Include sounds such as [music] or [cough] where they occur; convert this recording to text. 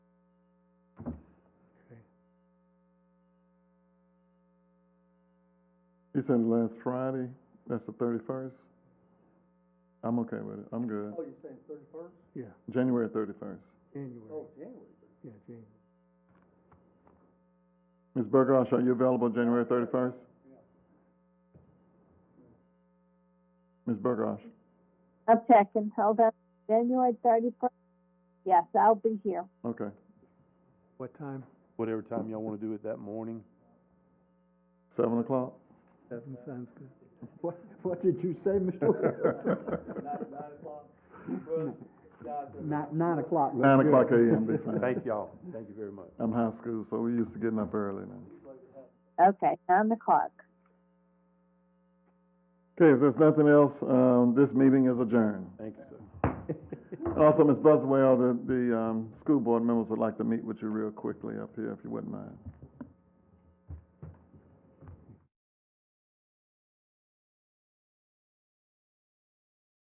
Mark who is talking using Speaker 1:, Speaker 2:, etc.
Speaker 1: You said last Friday, that's the thirty-first? I'm okay with it, I'm good.
Speaker 2: Oh, you're saying thirty-first?
Speaker 3: Yeah,
Speaker 1: January thirty-first.
Speaker 3: January,
Speaker 2: Oh, January.
Speaker 3: yeah, January.
Speaker 1: Ms. Bergosh, are you available January thirty-first? Ms. Bergosh,
Speaker 4: I'm checking, hold on, January thirty-first, yes, I'll be here.
Speaker 1: okay.
Speaker 3: What time?
Speaker 5: whatever time y'all wanna do it that morning.
Speaker 1: Seven o'clock?
Speaker 3: Seven sounds good. [laughs] What, what did you say,
Speaker 2: [laughs]
Speaker 3: Mr. Williams?
Speaker 2: Nine, nine o'clock. Bruce, guys,
Speaker 3: [laughs]
Speaker 2: if-
Speaker 3: Nine, nine o'clock. was
Speaker 1: Nine
Speaker 3: good.
Speaker 1: o'clock AM, be fine.
Speaker 5: Thank y'all, thank you very much.
Speaker 1: I'm high school, so we used to getting up early now.
Speaker 4: Okay, nine o'clock.
Speaker 1: Okay, if there's nothing else, um, this meeting is adjourned.
Speaker 5: Thank you, sir.
Speaker 1: And also, Ms. Buswell, the, the, um, school board members would like to meet with you real quickly up here, if you wouldn't mind.